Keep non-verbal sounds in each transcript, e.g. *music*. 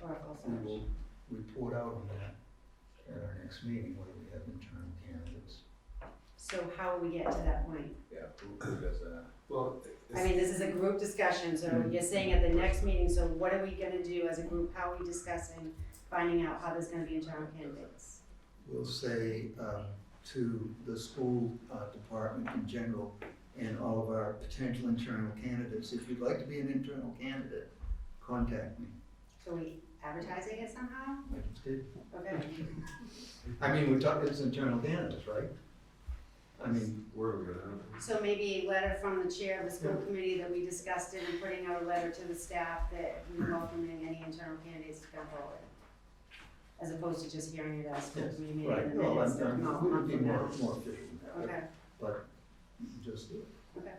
Oracle we search. will report out on that at our next meeting, whether we have internal candidates. So how will we get to that point? Yeah, who does that? Well, I mean, this is a group discussion, so Mm-hmm. you're saying at the next meeting, so what are we gonna do as a group? How are we discussing finding out how there's gonna be internal candidates? We'll say, uh, to the school, uh, department in general and all of our potential internal candidates, if you'd like to be an internal candidate, contact me. So we advertising it somehow? I just did. Okay. I mean, we're talking, it's internal candidates, right? I mean, where are we gonna, So maybe a letter from the chair of the school committee that we discussed it and putting out a letter to the staff that we welcoming any internal candidates to come forward. As opposed to just hearing it at a school Yes, committee meeting right, and no, then it's I'm, a I'm, month we would be from more, now. more efficient than that, Okay, but you can just do it.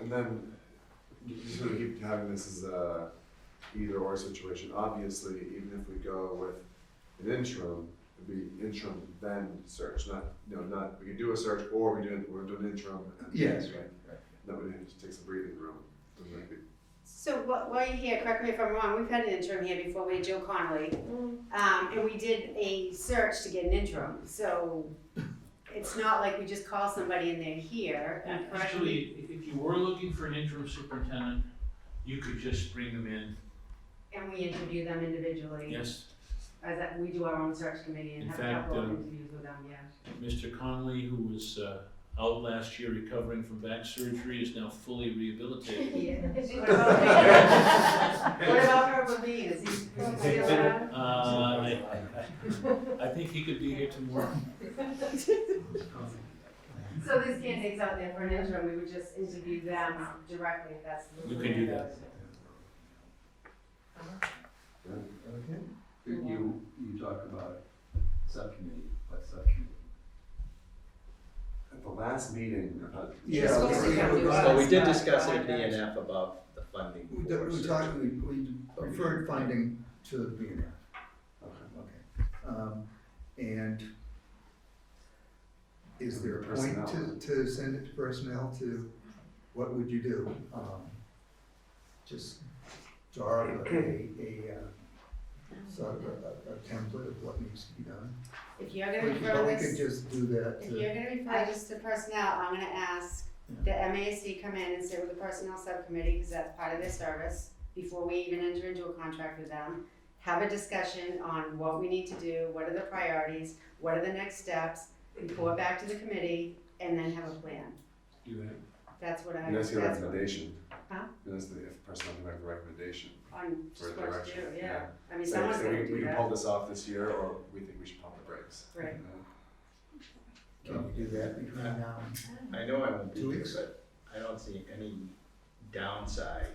and then you you sort of keep having this as a either or situation. Obviously, even if we go with an interim, it'd be interim then search, not, you know, not, we could do a search or we do, we're doing interim. and- right. That would have to take some breathing room. Doesn't that be- so wh- while you're here, correct me if I'm wrong, we've had an interim here before, we had Joe Connolly. Um, and we did a search to get an interim, so it's not like we just call somebody and they're here. correct me? Actually, if- if you were looking for an interim superintendent, you could just bring them in, And we interview them individually. yes, As that, we do our own search committee and In have a couple of fact, um, interviews with them, yeah. Mr. Conley, who was uh, out last year recovering from back surgery, is now fully rehabilitated. *laughs* What *laughs* about What about Herbert Lee, is he, is he still around? Uh, *laughs* I, I think he could be here tomorrow. So there's candidates out there for an interim, we would just interview them um, directly, if that's. the We can do that. Okay. You- You, you talked about subcommittee, what subcommittee? At the last meeting, uh, I thought, Yeah. Just we- focus on we- your we- So we did Right, discuss right, it at right. BNF about the funding We, for. we search. talked, we, we referred funding to the B and F, okay. okay. Um, and is there a point Personnel. to, to send it to personnel to, what would you do? Um, Just draw up a, a, uh, sort of a, a- a template of what needs to be done. If you're We gonna could- refer we could this, just do that if to- you're gonna refer this to personnel, I'm gonna ask the MASC come in and sit with the personnel subcommittee, cause that's part of their service, before we even enter into a contract with them. Have a discussion on what we need to do, what are the priorities, what are the next steps, report back to the committee, and then have a plan. You That's what I, And that's that's your recommendation. Huh? And that's the, if person can make a recommendation on for a just what to direction. do, yeah. I mean, Say- someone's say gonna we- We do can that, pull this off this year, or we think we should pump the brakes. right? you know? Can we do that between now and? I know I won't be Two here, weeks? but I don't see any downside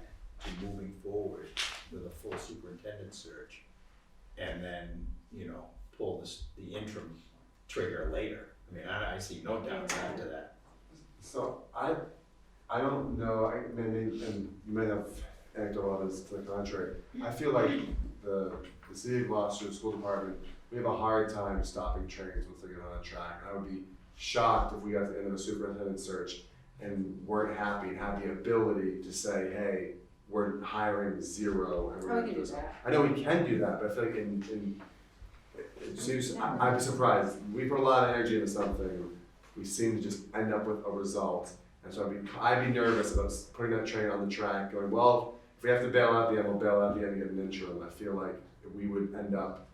to moving forward with a full superintendent search. And then, you know, pull this, the interim trigger later. I mean, I, I see no downside to that. So I, I don't know, I maybe, and you may have anecdotal evidence to the contrary. I feel like the, the city of Gloucester School Department, we have a hard time stopping trains once they get on a track. I would be shocked if we got to the end of a superintendent search and weren't happy and had the ability to say, hey, we're hiring zero and we're Oh, we gonna can do do this. that. I know we can do that, but I feel like in, in, it seems, I- I'd be surprised, we put a lot of energy into something, we seem to just end up with a result. And so I'd be, I'd be nervous about s- putting that train on the track, going, well, if we have to bail out the end, we'll bail out the end and get an interim. I feel like we would end up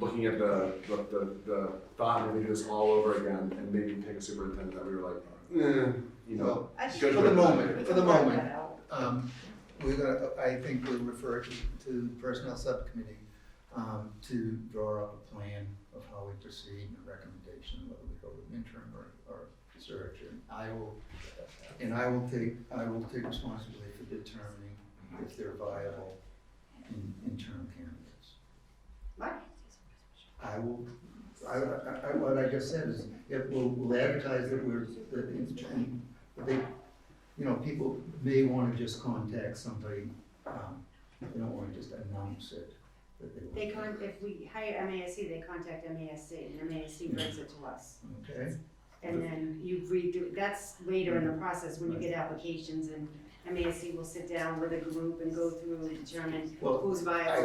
looking at the, the, the, the thought of doing this all over again and maybe pick a superintendent that we were like, eh, you know. I just- Good For the we moment, can for the work that moment, out. um, we're gonna, I think we'll refer to, to the personnel subcommittee, um, to draw up a plan of how we proceed and a recommendation, whether we go with interim or, or search, and I will, and I will take, I will take responsibility for determining if they're viable in, interim candidates. What? I will, I, I, I, what I just said is, if we'll, we'll advertise that we're, that it's, that they, you know, people may wanna just contact somebody, um, they don't wanna just announce it, that they They want. con, if we hire MASC, they contact MASC, and MASC brings it to us. Okay, And then you redo, that's later in the process, when you get applications, and MASC will sit down with a group and go through and determine well, who's viable,